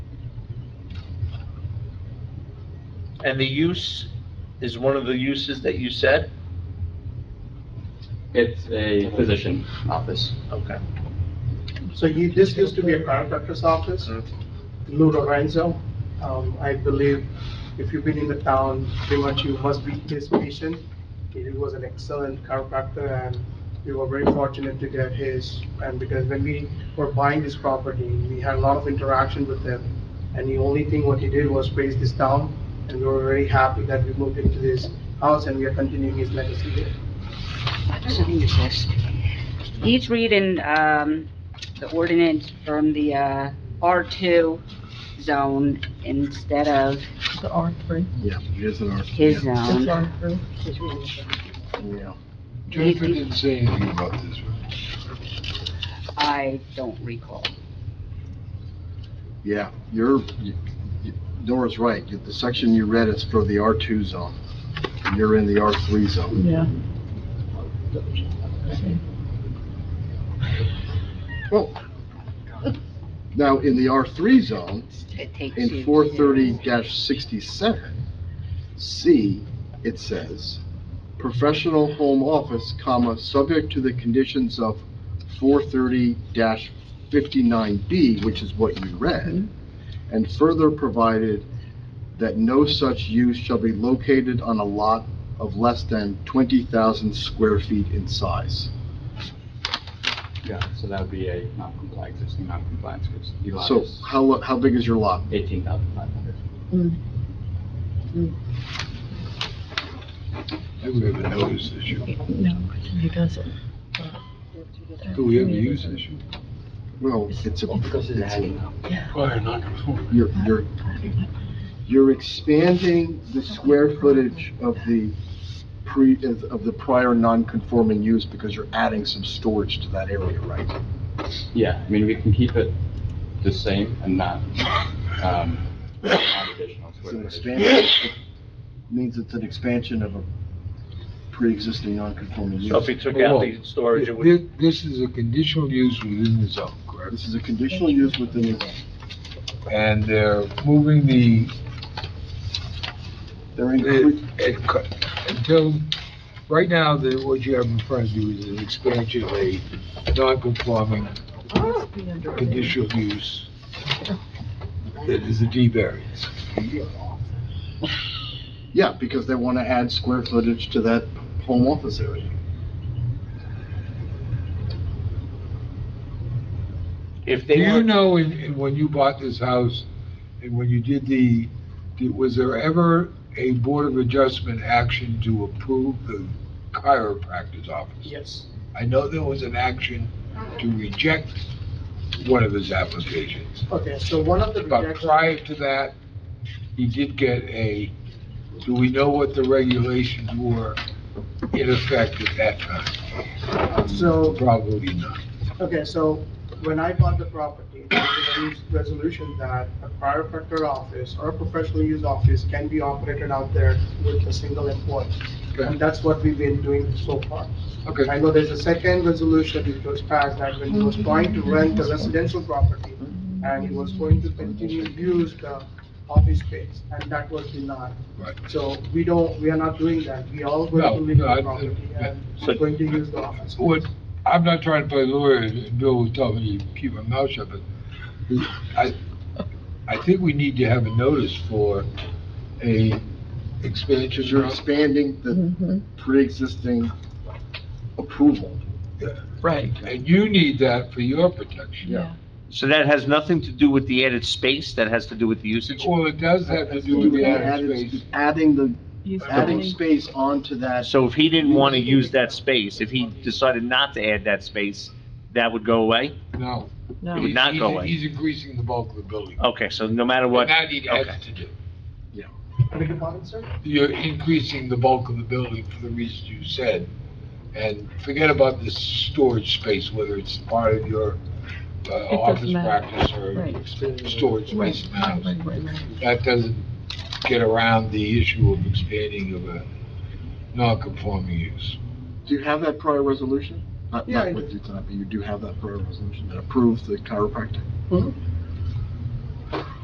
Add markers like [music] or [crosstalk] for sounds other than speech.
And the use is one of the uses that you said? It's a physician office. Okay. So you, this used to be a chiropractor's office, Mm-hmm. Lou Lorenzo. Um, I believe if you've been in the town, pretty much you must be his patient. He was an excellent chiropractor and we were very fortunate to get his. And because when we were buying this property, we had a lot of interaction with him. And the only thing what he did was raise this town and we were very happy that we moved into this house and we are continuing his legacy here. He's reading, um, the ordinance from the, uh, R2 zone instead of The R three. Yeah, it is an R. his zone. It's R three. Yeah. Jennifer didn't say anything about this, right? I don't recall. Yeah, you're, you- you- Nora's right. The section you read is for the R2 zone. You're in the R3 zone. Yeah. Well, now, in the R3 zone, It takes you in to- four thirty sixty-seven, C, it says, professional home office, comma, subject to the conditions of four thirty fifty-nine B, which is what you read, and further provided that no such use shall be located on a lot of less than twenty thousand square feet in size. Yeah, so that would be a non-compliant, existing non-compliant, because the lot So is how, how big is your lot? 18,500. Do we have a notice issue? No, he doesn't. Do we have a use issue? Well, it's a, Because it's a it's a hanging house. Prior non-conforming. You're, you're, you're expanding the square footage of the pre, of of the prior non-conforming use because you're adding some storage to that area, right? Yeah, I mean, we can keep it the same and not, [coughs] um, add additional It's an square footage. expansion, it means it's an expansion of a pre-existing non-conforming So if use. he took out the storage, it would, This, this is a conditional use within the zone, correct? This is a conditional use within the, And they're moving the, they're it- incre- it cut- until, right now, the, what you have in front of you is an expansion of a non-conforming conditional use that is a D variance. yeah, because they want to add square footage to that home office area. if Do they you were, know, in, in- when you bought this house, and when you did the, did- was there ever a Board of Adjustment action to approve the chiropractor's office? Yes. I know there was an action to reject one of his applications, Okay, so one of the but rejections. prior to that, he did get a, do we know what the regulations were in effect at that time? So- Probably not. Okay, so when I bought the property, there was a resolution that a chiropractor office or a professional use office can be operated out there with a single employee. And Okay, that's what we've been doing so far. okay. I know there's a second resolution which was passed that when he was trying to rent a residential property and he was going to continue to use the office space, and that was denied. Right. So we don't, we are not doing that. We all going No, to leave no, I- the property and So- we're going to use the office. What, I'm not trying to play lawyer, and Bill will tell me to keep my mouth shut, but I, I think we need to have a notice for a expansion. Because you're expanding the Mhm. pre-existing approval. Right. And you need that for your protection. Yeah. so that has nothing to do with the added space, that has to do with the usage? Well, it does have to do with the added space. Adding the He's adding adding- space onto that, So if he didn't want to use that space, if he decided not to add that space, that would go away? No. No. It would not go away. He's increasing the bulk of the building. Okay, so no matter what, And that he okay. has to do. Beg your pardon, sir? You're increasing the bulk of the building for the reasons you said. And forget about this storage space, whether it's part of your uh, doesn't office matter. practice or Right. storage space Right, in the right, right, house. right. That doesn't get around the issue of expanding of a non-conforming use. do you have that prior resolution? Not, Yeah, not I with you tonight, but you do have that prior resolution that approves the chiropractic? Mhm.